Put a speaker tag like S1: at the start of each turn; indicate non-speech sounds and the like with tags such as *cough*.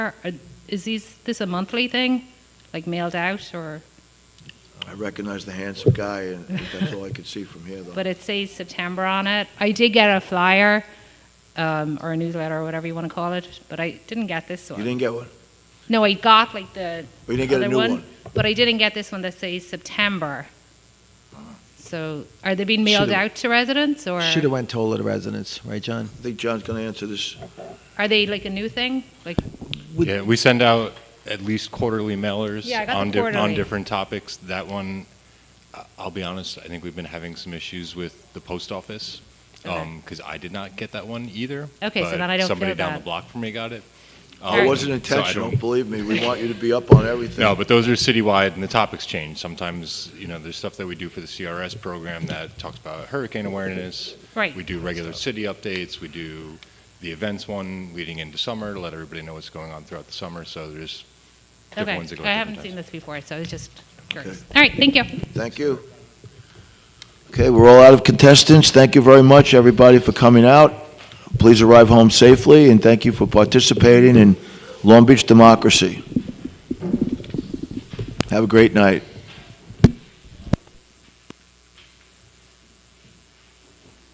S1: Are- Is these, this a monthly thing, like mailed out, or,
S2: I recognize the handsome guy, and that's all I could see from here, though.
S1: but it says September on it? I did get a flyer, um, or a newsletter, or whatever you want to call it, but I didn't get this
S2: You
S1: one.
S2: didn't get one?
S1: No, I got like the
S2: We didn't get a
S1: other
S2: new
S1: one,
S2: one?
S1: but I didn't get this one that says September. So are they being mailed
S3: Should've-
S1: out to residents, or
S3: Should have went to all of the residents, right, John?
S2: I think John's going to answer this.
S1: are they like a new thing? Like,
S3: Would-
S4: Yeah, we send out at least quarterly mailers
S1: Yeah, I got the
S4: on, di-
S1: quarterly.
S4: on different topics. That one, I- I'll be honest, I think we've been having some issues with the post office
S1: Okay.
S4: because I did not get that one either.
S1: Okay, so
S4: but
S1: then I don't
S4: Somebody
S1: feel
S4: down
S1: bad.
S4: the block from me got it. Um,
S2: It
S1: Alright.
S2: wasn't
S4: Oh, so I
S2: intentional,
S4: don't-
S2: believe me.
S4: *laughs*
S2: We want you to be up on everything.
S4: No, but those are citywide, and the topics change. Sometimes, you know, there's stuff that we do for the CRS program that talks about hurricane awareness.
S1: Right.
S4: We do regular city updates. We do the events one leading into summer to let everybody know what's going on throughout the summer. So there's different
S1: okay,
S4: ones that go. at
S1: I
S4: different
S1: haven't
S4: times.
S1: seen this before, so I was just curious.
S2: Okay.
S1: All right, thank you.
S2: Thank you. Okay, we're all out of contestants. Thank you very much, everybody, for coming out. Please arrive home safely, and thank you for participating in Long Beach democracy. Have a great night.